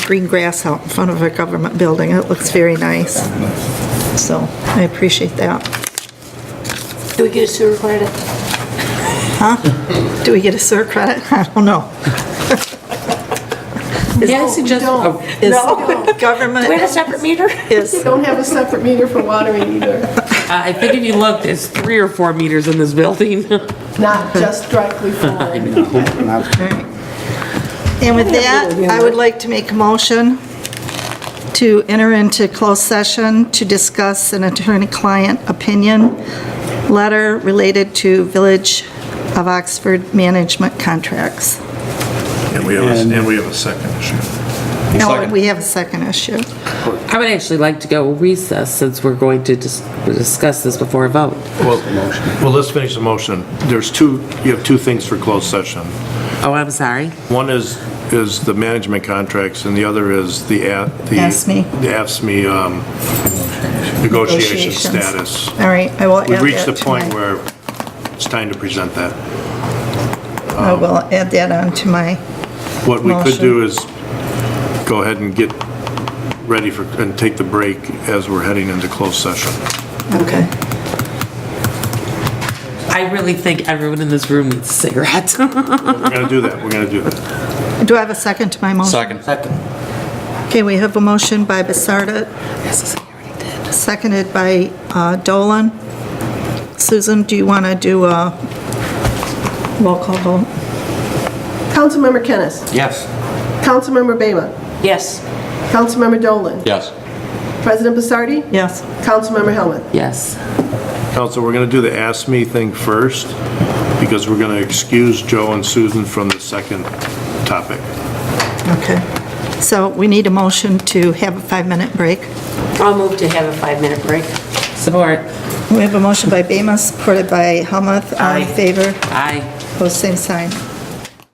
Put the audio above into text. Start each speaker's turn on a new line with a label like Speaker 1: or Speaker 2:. Speaker 1: green grass out in front of a government building. It looks very nice. So I appreciate that.
Speaker 2: Do we get a sewer credit?
Speaker 1: Do we get a SIR credit? I don't know.
Speaker 2: Yeah, I suggest,
Speaker 3: Oh,
Speaker 1: Is government,
Speaker 2: we have a separate meter?
Speaker 1: is,
Speaker 4: Don't have a separate meter for watering either,
Speaker 3: I think if you looked, it's three or four meters in this building.
Speaker 4: not just directly for.
Speaker 1: and with that, I would like to make a motion to enter into closed session to discuss an attorney-client opinion letter related to Village of Oxford management contracts.
Speaker 5: And we have, a- and we have a second issue.
Speaker 1: No, we have a second issue.
Speaker 3: I would actually like to go recess since we're going to dis- discuss this before a vote.
Speaker 5: Well, let's finish the motion. There's two, you have two things for closed session.
Speaker 3: Oh, I'm sorry.
Speaker 5: One is, is the management contracts, and the other is the. A- the-
Speaker 1: AFSCME.
Speaker 5: The AFSCME um, negotiation
Speaker 1: Negotiations.
Speaker 5: status.
Speaker 1: All right, I will add
Speaker 5: We've
Speaker 1: that
Speaker 5: reached the
Speaker 1: to
Speaker 5: point
Speaker 1: my-
Speaker 5: where it's time to present that.
Speaker 1: I will Oh, add that on to my,
Speaker 5: What we could
Speaker 1: Motion.
Speaker 5: do is go ahead and get ready for, and take the break as we're heading into closed session.
Speaker 1: okay.
Speaker 3: I really think everyone in this room needs a cigarette.
Speaker 5: We're going to do that, we're going to do that.
Speaker 1: Do I have a second to my motion?
Speaker 6: Second.
Speaker 1: Okay, we have a motion by Basarda, seconded by uh, Dolan. Susan, do you want to do a roll call vote?
Speaker 4: Councilmember Kennis?
Speaker 6: Yes.
Speaker 4: Councilmember Bama?
Speaker 2: Yes.
Speaker 4: Councilmember Dolan?
Speaker 6: Yes.
Speaker 4: President Basardi?
Speaker 1: Yes.
Speaker 4: Councilmember Hellman?
Speaker 3: Yes.
Speaker 5: Council, we're going to do the Ask Me thing first, because we're going to excuse Joe and Susan from the second topic.
Speaker 1: Okay. So we need a motion to have a five-minute break.
Speaker 2: I'll move to have a five-minute break.
Speaker 3: Support.
Speaker 1: We have a motion by Bama, supported by Helmuth. All
Speaker 3: Aye.
Speaker 1: in favor?
Speaker 3: Aye.
Speaker 1: Post same sign.